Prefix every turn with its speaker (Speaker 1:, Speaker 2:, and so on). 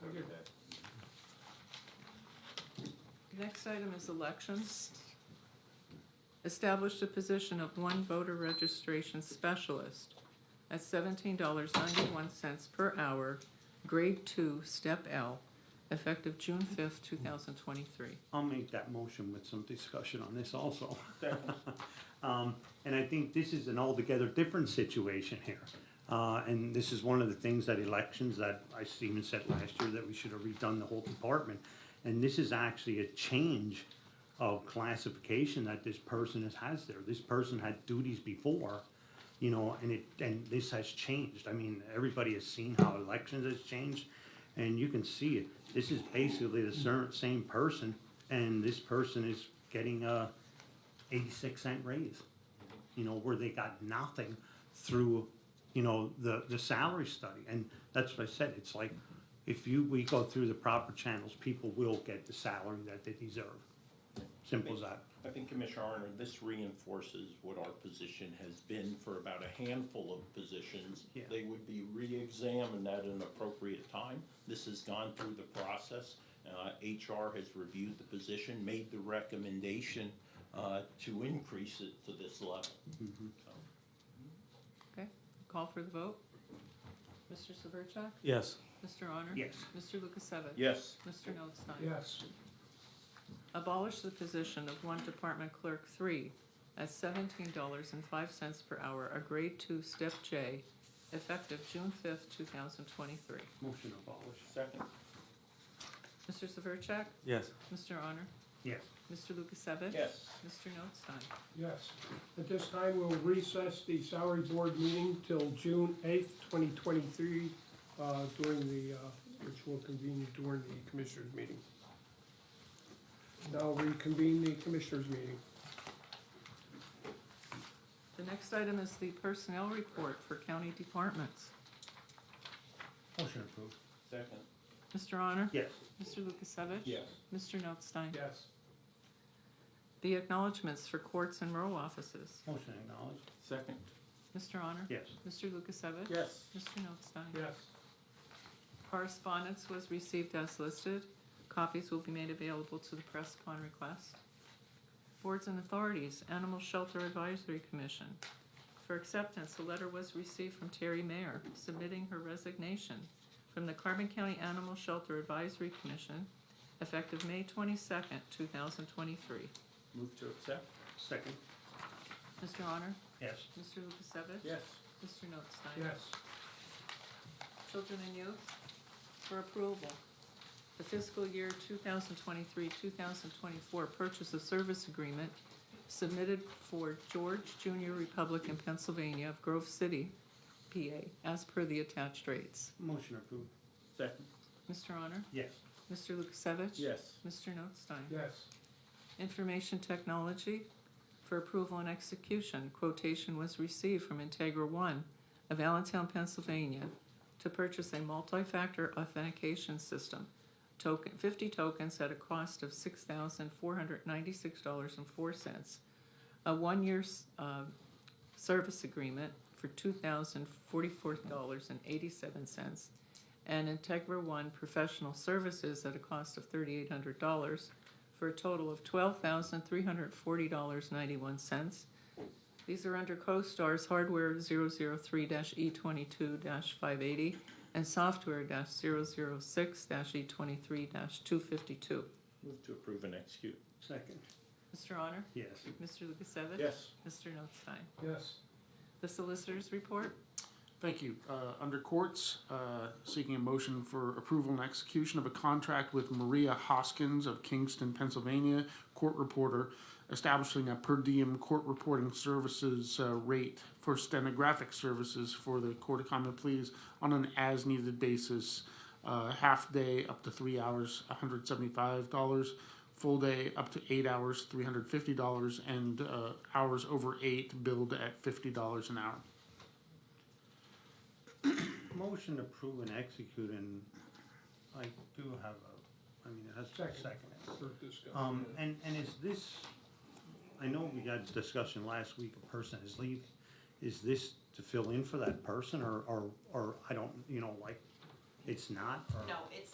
Speaker 1: Next item is elections. Establish the position of one voter registration specialist at seventeen dollars ninety-one cents per hour, grade two, step L, effective June fifth, two thousand twenty-three.
Speaker 2: I'll make that motion with some discussion on this also. Um, and I think this is an altogether different situation here. Uh, and this is one of the things that elections that I even said last year that we should have redone the whole department. And this is actually a change of classification that this person has, has there. This person had duties before, you know, and it, and this has changed. I mean, everybody has seen how elections has changed, and you can see it. This is basically the cer- same person, and this person is getting uh, a eighty-six cent raise. You know, where they got nothing through, you know, the, the salary study, and that's what I said, it's like, if you, we go through the proper channels, people will get the salary that they deserve. Simple as that.
Speaker 3: I think, Commissioner Arner, this reinforces what our position has been for about a handful of positions.
Speaker 2: Yeah.
Speaker 3: They would be reexamined at an appropriate time. This has gone through the process. Uh, HR has reviewed the position, made the recommendation uh, to increase it to this level. So,
Speaker 1: Okay, call for the vote. Mr. Severcek?
Speaker 4: Yes.
Speaker 1: Mr. Honor?
Speaker 2: Yes.
Speaker 1: Mr. Lukasevich?
Speaker 3: Yes,
Speaker 1: Mr. Notstein?
Speaker 4: Yes.
Speaker 1: Abolish the position of one department clerk three at seventeen dollars and five cents per hour, a grade two, step J, effective June fifth, two thousand twenty-three.
Speaker 2: Motion abolished.
Speaker 3: second,
Speaker 1: Mr. Severcek?
Speaker 4: Yes.
Speaker 1: Mr. Honor?
Speaker 2: Yes.
Speaker 1: Mr. Lukasevich?
Speaker 3: yes.
Speaker 1: Mr. Notstein?
Speaker 5: Yes. At this time, we'll recess the salary board meeting till June eighth, twenty twenty-three, uh, during the, uh, which will convene during the commissioners' meeting. Now reconvene the commissioners' meeting.
Speaker 1: The next item is the personnel report for county departments.
Speaker 2: Motion approved.
Speaker 3: Second,
Speaker 1: Mr. Honor?
Speaker 2: Yes.
Speaker 1: Mr. Lukasevich?
Speaker 3: yes.
Speaker 1: Mr. Notstein?
Speaker 5: Yes.
Speaker 1: The acknowledgements for courts and rural offices.
Speaker 2: Motion acknowledged.
Speaker 3: Second,
Speaker 1: Mr. Honor?
Speaker 2: Yes.
Speaker 1: Mr. Lukasevich?
Speaker 3: yes.
Speaker 1: Mr. Notstein?
Speaker 5: Yes.
Speaker 1: Correspondence was received as listed. Copies will be made available to the press upon request. Boards and authorities, Animal Shelter Advisory Commission. For acceptance, a letter was received from Terry Mayer submitting her resignation from the Carbon County Animal Shelter Advisory Commission effective May twenty-second, two thousand twenty-three.
Speaker 3: Move to accept,
Speaker 2: Second.
Speaker 1: Mr. Honor?
Speaker 2: Yes.
Speaker 1: Mr. Lukasevich?
Speaker 3: yes.
Speaker 1: Mr. Notstein?
Speaker 5: Yes.
Speaker 1: Children and Youth for approval. The fiscal year 2023-2024 purchase of service agreement submitted for George Junior Republican Pennsylvania of Grove City, PA, as per the attached rates.
Speaker 2: Motion approved.
Speaker 3: Second,
Speaker 1: Mr. Honor?
Speaker 2: Yes.
Speaker 1: Mr. Lukasevich?
Speaker 3: yes.
Speaker 1: Mr. Notstein?
Speaker 5: Yes.
Speaker 1: Information Technology for approval and execution. Quotation was received from Integra One of Allentown, Pennsylvania to purchase a multi-factor authentication system, token, fifty tokens at a cost of six thousand four hundred ninety-six dollars and four cents. A one-year, uh, service agreement for two thousand forty-four dollars and eighty-seven cents. And Integra One Professional Services at a cost of thirty-eight hundred dollars for a total of twelve thousand three hundred forty dollars ninety-one cents. These are under CoStar's hardware 3 E twenty-two five eighty and software 6 E twenty-three two fifty-two.
Speaker 3: Move to approve and execute,
Speaker 2: Second.
Speaker 1: Mr. Honor?
Speaker 2: Yes.
Speaker 1: Mr. Lukasevich?
Speaker 3: yes.
Speaker 1: Mr. Notstein?
Speaker 5: Yes.
Speaker 1: The solicitors report?
Speaker 6: Thank you. Uh, Under courts, uh, seeking a motion for approval and execution of a contract with Maria Hoskins of Kingston, Pennsylvania, court reporter, establishing a per diem court reporting services uh, rate for stenographic services for the Court of Common Pleas on an as-needed basis, uh, half day up to three hours, $175, full day up to eight hours, $350, and uh, hours over eight billed at $50 an hour.
Speaker 2: Motion approved and execute, and I do have a, I mean, it has to be
Speaker 5: Second.
Speaker 2: seconded.
Speaker 5: For discussion.
Speaker 2: Um, and, and is this, I know we had a discussion last week, a person is leaving. Is this to fill in for that person or, or, or I don't, you know, like, it's not? or-
Speaker 7: No, it's